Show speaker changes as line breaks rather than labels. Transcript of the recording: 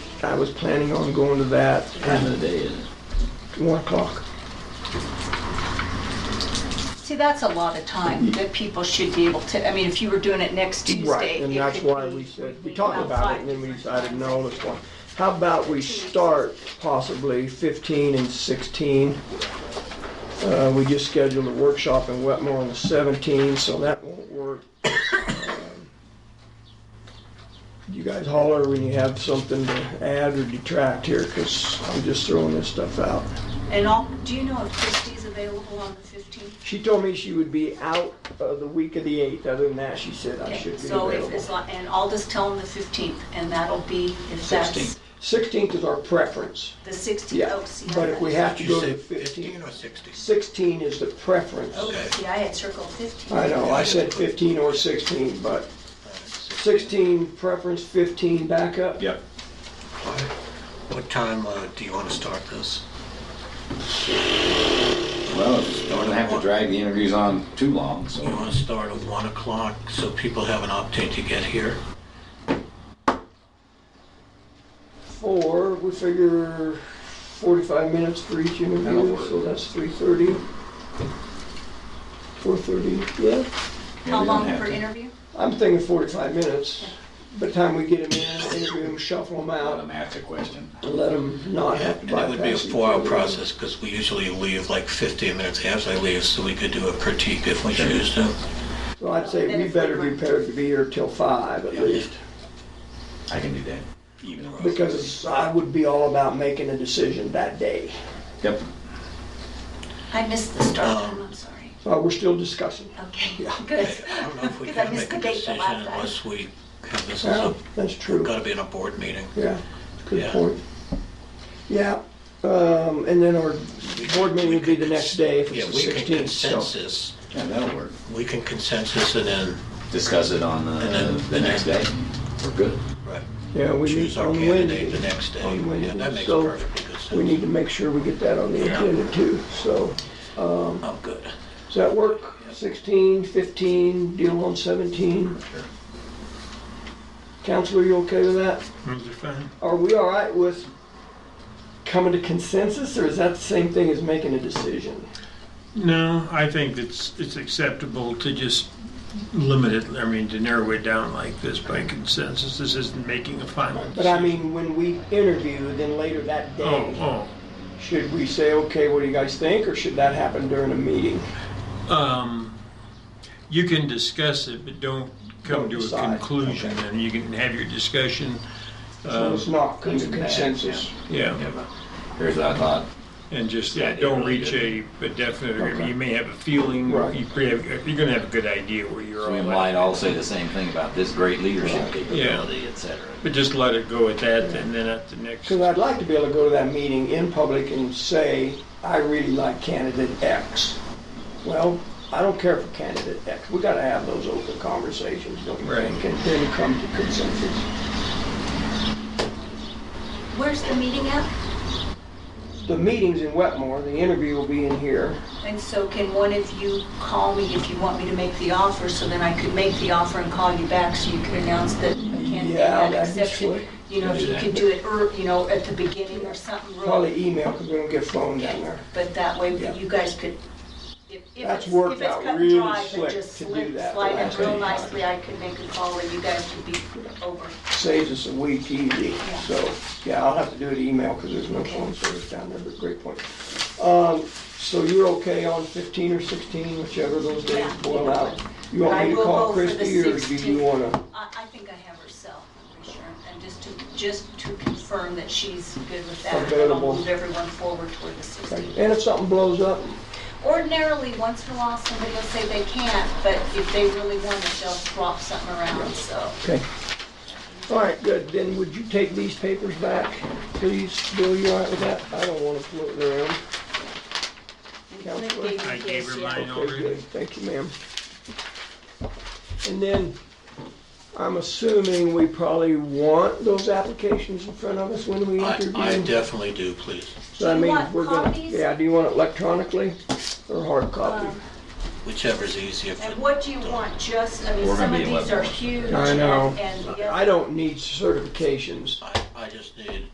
I was planning on going to that
Time
at
of the day is,
one o'clock.
See, that's a lot of time that people should be able to, I mean, if you were doing it next Tuesday.
Mm-hmm. Right, and
it
that's
could
why
be-
we said, we
be
talked about it,
outside.
and then we decided, no, let's go. How about we start possibly 15 and 16? Uh, We just scheduled a workshop in Wetmore on the 17th, so that won't work. Um, You guys holler when you have something to add or detract here, because I'm just throwing this stuff out.
And all, do you know if Christie's available on the 15th?
She told me she would be out uh, the week of the 8th, other than that, she said I
Okay,
should be
So
available.
if, it's not- and I'll just tell them the 15th, and that'll be, if that's
16th.
16th is our preference.
the 16th.
Yeah,
oh, see, I
but if we have
had-
to
Did
go
you
to
say
15,
fifteen or sixteen?
16 is the preference.
Oh,
Okay.
see, I had circled 15.
I know, I said 15 or 16, but 16 preference, 15 backup.
yep.
What- What time uh, do you want to start this?
Well, it's- I wouldn't have to drag the interviews on too long, so.
You want to start at one o'clock so people have an opportunity to get here?
Four, we figure 45 minutes for each
That'll
interview,
work.
so that's 3:30. 4:30, yeah.
yeah,
How
we don't
long
have
per
to.
interview?
I'm thinking 45 minutes. By the time we get them in, interview them, shuffle them
Let
out,
them ask a question.
and let them not have to
And it
bypass.
would be a
each
four-hour
other.
process because we usually leave like 15 minutes after I leave, so we could do a critique if we choose to.
So I'd say we better be prepared to be here till five at least,
I can do that. Even though-
because I would be all about making a decision that day.
Yep.
I missed the start time, I'm sorry.
Uh, we're still discussing.
Okay,
Yeah.
good.
I don't know if we
Because I
can
missed
make
the
a
date the
decision
last time.
unless we have this as
Yeah,
a,
that's true.
got to be in a board meeting.
Yeah, good
Yeah.
point. Yeah, um, and then our board meeting would be the next day if
Yeah,
it's the
we can
sixteenth, so.
consensus,
Yeah, that'll work.
we can consensus and then,
Discuss it on
And
uh,
then-
the next day. We're good.
right.
Yeah, we
choose
need
our
on
candidate the
Wednesday.
next day.
on Wednesday.
Yeah, that makes
So,
perfectly good
We
sense.
need to make sure we get that on the agenda too, so.
I'm good.
Does that work? Sixteen, fifteen, deal on seventeen?
Sure.
Counselor, you okay with that?
fine.
Are we all right with coming to consensus, or is that the same thing as making a decision?
No, I think it's, it's acceptable to just limit it, I mean, to narrow it down like this by consensus. This isn't making a final
But I
decision.
mean, when we interview, then later that day,
Oh,
should we say, okay, what do you guys think, or should that happen during a meeting?
oh, um, you can discuss it, but
Don't
don't come to a
decide.
conclusion, and you can have your discussion,
So
um,
it's not
Good
come
and
to
bad,
consensus.
yeah,
Yeah, but Here's what I thought.
and just,
Yeah,
yeah,
it
don't
really
reach a
did.
a definite, I
Okay.
mean, you may have a feeling,
Right.
you pre- have- you're gonna have a good idea where you're
So we
all
might
at.
all say the same thing about this great leadership capability, et cetera.
But just let it go at that, and then at the next.
Because I'd like to be able to go to that meeting in public and say, I really like candidate X. Well, I don't care for candidate X. We gotta have those open conversations, don't you
Right.
think? And then come to consensus.
Where's the meeting at?
The meeting's in Wetmore, the interview will be in here.
And so can one of you call me if you want me to make the offer, so then I could make the offer and call you back so you could announce that a candidate
Yeah,
had
that'd be
accepted?
slick.
You know, if you could do it, ear- you know, at the beginning or something. real-
Probably email, because we don't get phone down there.
But that way,
Yeah.
you guys could, if, if
That's
it's,
worked
if it's
out
cut and
really
dry, but
slick
just
to do
slip,
that the
slide
last
it real
time.
nicely, I could make a call and you guys could be over.
Saves us a week easy, so, yeah, I'll have to do it email, because there's no phone service down there, but great point. Um, so you're okay on fifteen or sixteen, whichever those days
Yeah.
boil out? You
But
want
I
me to
will
call
go for the
Christie, or do you
16.
wanna?
I, I think I have her cell, I'm pretty sure, and just to, just to confirm that she's good with that. and then I'll
Available.
move everyone forward toward the 16th.
And if something blows up,
Ordinarily, once in a while, somebody will say they can't, but if they really want it, they'll swap something around, so.
okay. All right, good, then would you take these papers back, please, Bill, you all right with that? I don't wanna float around. Counselor?
I gave her
Yeah.
mine
Okay,
already.
good, thank you, ma'am. And then, I'm assuming we probably want those applications in front of us when we
I, I
interview?
definitely do, please.
So that
Do you
means
want
we're gonna-
copies?
Yeah, do you want it electronically or hard copy?
Um,
Whichever's easier for.
And what do you want, just, I mean,
We're
some
gonna
of
be
these
eleven.
are huge.
I know.
and- and the
I
other-
don't need certifications.
I, I just need